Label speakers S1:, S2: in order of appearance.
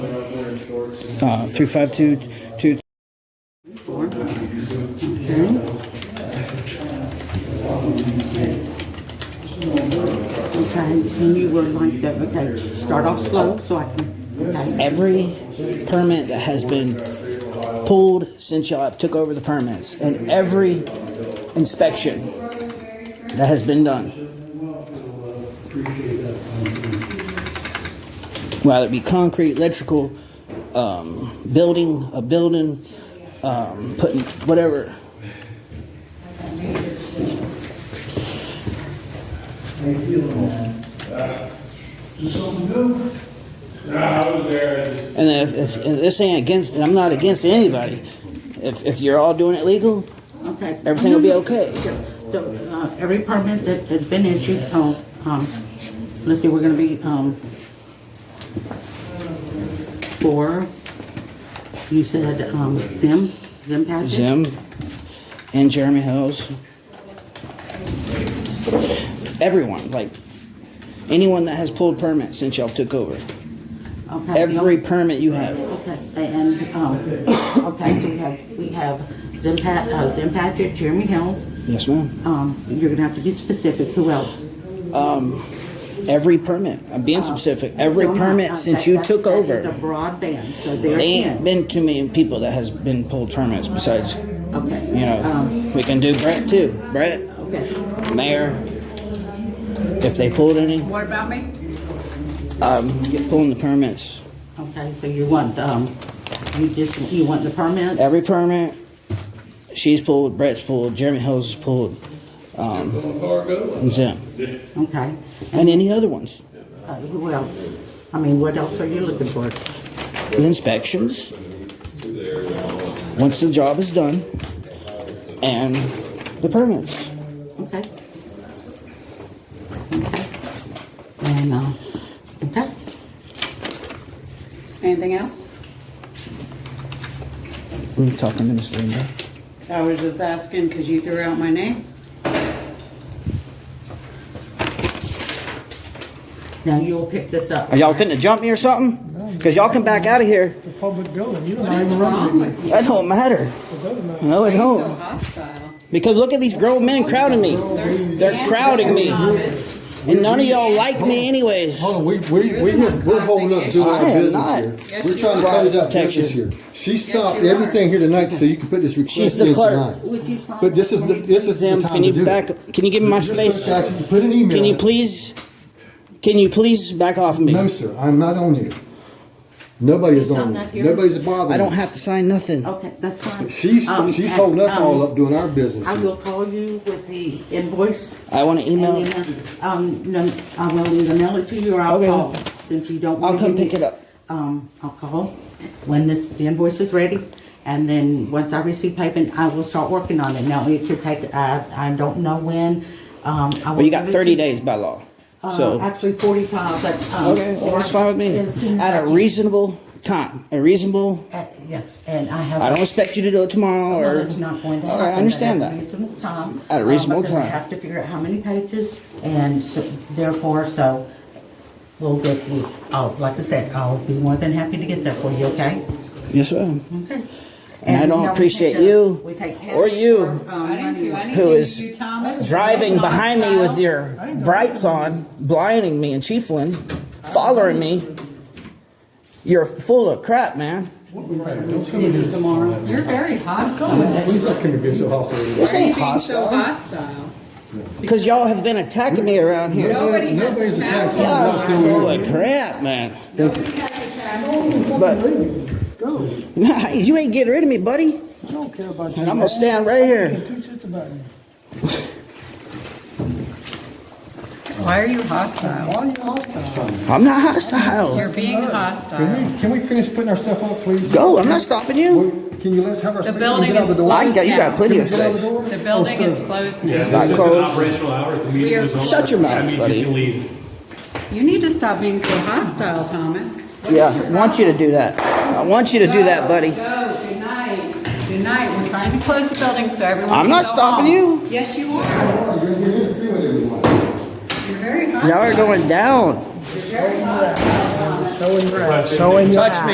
S1: uh, 3522,
S2: Four. Okay. Okay, and you would like to, okay, start off slow so I can, okay.
S1: every permit that has been pulled since y'all have took over the permits and every inspection that has been done. Whether it be concrete, electrical, um, building, a building, um, putting, whatever.
S3: I was there and
S1: And then if, if, and this ain't against, and I'm not against anybody. If, if you're all doing it legal,
S2: Okay.
S1: Everything will be okay.
S2: So, uh, every permit that has been issued, oh, um, let's see, we're gonna be, um, four, you said, um, Zim, Zim Patrick?
S1: Zim and Jeremy Hills. Everyone, like anyone that has pulled permits since y'all took over.
S2: Okay.
S1: Every permit you have.
S2: Okay, and, um, okay, so we have, we have Zim Pat, uh, Zim Patrick, Jeremy Hills,
S1: Yes, ma'am.
S2: um, you're gonna have to be specific, who else?
S1: Every permit. I'm being specific. Every
S2: So, uh,
S1: permit
S2: uh,
S1: since
S2: that-
S1: you
S2: that's-
S1: took
S2: that is
S1: over.
S2: a broadband, so
S1: There
S2: they're
S1: ain't
S2: in.
S1: been too many people that has been pulled permits besides, you
S2: Okay. Um,
S1: know, we can do Brett too. Brett,
S2: Okay,
S1: Mayor, if they pulled any,
S4: What about me?
S1: um, get pulling the permits.
S2: okay, so you want, um, you just, you want the permits?
S1: Every permit, she's pulled, Brett's pulled, Jeremy Hills is pulled, um,
S3: the car going.
S1: and Zim,
S2: Okay,
S1: and any other ones.
S2: uh, who else? I mean, what else are you looking for?
S1: The inspections, once the job is done, and the permits.
S2: Okay. Okay. And, uh, okay,
S4: Anything else?
S1: I'm talking to Ms. Linda.
S4: I was just asking because you threw out my name.
S2: now you'll pick this up.
S1: Are y'all finna jump me or something? Cause y'all can back out of here.
S5: It's a public building, you don't
S4: What is
S5: even
S4: wrong
S5: run it.
S4: with you?
S1: That don't matter.
S5: It doesn't matter.
S1: No, it
S4: Why are you so
S1: don't.
S4: hostile?
S1: Because look at these grown men crowding me. They're crowding me.
S4: Thomas,
S1: And none of y'all like me anyways.
S6: Hold on, we, we, we,
S4: You're the
S6: we're holding up doing
S1: I
S6: our
S1: am not.
S6: business here.
S4: Yes,
S6: We're
S4: you
S6: trying to
S4: are.
S6: close out
S1: Texas.
S6: business here. She stopped
S4: you are.
S6: everything here tonight so you can put this
S1: She's
S6: request
S1: the
S6: in
S1: clerk.
S6: tonight.
S2: Would you sign
S6: But this
S2: it
S6: is
S2: for
S6: the,
S2: me?
S6: this is the
S1: Zim,
S6: time
S1: can
S6: to
S1: you
S6: do
S1: back,
S6: it.
S1: can you give me my
S6: You're
S1: space?
S6: supposed to actually Put an email.
S1: Can you
S6: out.
S1: please, can you please back off me?
S6: No, sir, I'm not on here. Nobody is
S2: Please, I'm
S6: on
S2: not
S6: here.
S2: here.
S6: Nobody's bothering.
S1: I don't
S6: me.
S1: have to sign nothing.
S2: Okay, that's fine.
S6: She's,
S2: Um,
S6: she's
S2: and,
S6: holding us
S2: um,
S6: all up doing our business.
S2: I
S6: here.
S2: will call you with the invoice.
S1: I want to email.
S2: And then, um, no, I will either mail it to you or I'll
S1: Okay.
S2: call, since you don't want
S1: I'll
S2: to.
S1: come pick it up.
S2: Um, I'll call when the, the invoice is ready, and then once I receive payment, I will start working on it. Now, it could take, I, I don't know when, um, I
S1: Well,
S2: will.
S1: you
S2: give
S1: got
S2: it to-
S1: 30 days by law.
S2: Uh,
S1: So,
S2: actually forty-five, but, um.
S1: okay, well, that's fine with
S2: as
S1: me.
S2: soon as I
S1: At a
S2: can.
S1: reasonable time, a reasonable,
S2: Uh, Yes, and I have.
S1: I don't expect you to do it tomorrow
S2: Well,
S1: or,
S2: it's not going to
S1: All
S2: happen.
S1: right, I understand
S2: At a
S1: that.
S2: reasonable time.
S1: At a
S2: uh,
S1: reasonable
S2: because I
S1: time.
S2: have to figure out how many pages, and so- therefore, so, we'll get, we- I'll, like I said, I'll be more than happy to get that for you, okay?
S1: Yes, ma'am.
S2: Okay.
S1: And I
S2: you
S1: don't
S2: know, we
S1: appreciate
S2: take the-
S1: you
S2: we take
S1: or
S2: cash
S1: you
S2: or, um,
S4: I didn't do
S2: money.
S4: anything
S1: Who
S4: to
S1: is
S4: you, Thomas.
S1: Driving
S4: You're
S1: behind me with
S4: hostile.
S1: your brights on, blinding me and Chieflin, following me. You're full of crap, man.
S4: Tomorrow. You're very hostile.
S6: Please don't come to be so hostile.
S1: This
S4: Why are you
S1: ain't
S4: being so
S1: hostile.
S4: hostile?
S1: Because y'all have been attacking me around here.
S4: Nobody has
S6: Nobody's attacked
S4: attacked you.
S6: you.
S1: Y'all are full of crap, man.
S4: Nobody has attacked you.
S1: But
S5: Go,
S1: nah, you ain't getting rid of me, buddy.
S5: I don't care about you.
S1: I'm gonna stand right
S5: I
S1: here.
S5: don't give two shits about you.
S4: Why are you hostile?
S5: Why are you hostile?
S1: I'm not hostile.
S4: You're being hostile.
S6: Can we, can we finish putting ourselves up, please?
S1: Go. I'm not stopping you.
S6: We- Can you let us have our space? and
S4: building
S6: get out
S4: is
S6: the door?
S1: I got you. Got plenty of
S6: Can we get out
S1: space.
S6: door?
S4: The building
S6: Oh,
S4: is
S6: sir.
S4: closed
S7: Yeah,
S4: now.
S1: not
S7: this is
S1: closed.
S7: an operational hours, the
S4: We are-
S7: meeting was over.
S1: Shut your mouth,
S7: That means
S1: buddy.
S7: you can leave.
S4: You need to stop being so hostile, Thomas.
S1: Yeah, I want you to do that. I want you to do that, buddy.
S4: Go, good night. Good night. We're trying to close the building so everyone
S1: I'm
S4: can
S1: not
S4: go
S1: stopping
S4: home. Yes, you are.
S6: You're here to do it, everyone.
S4: You're very hostile.
S1: Y'all are going down.
S5: Showing your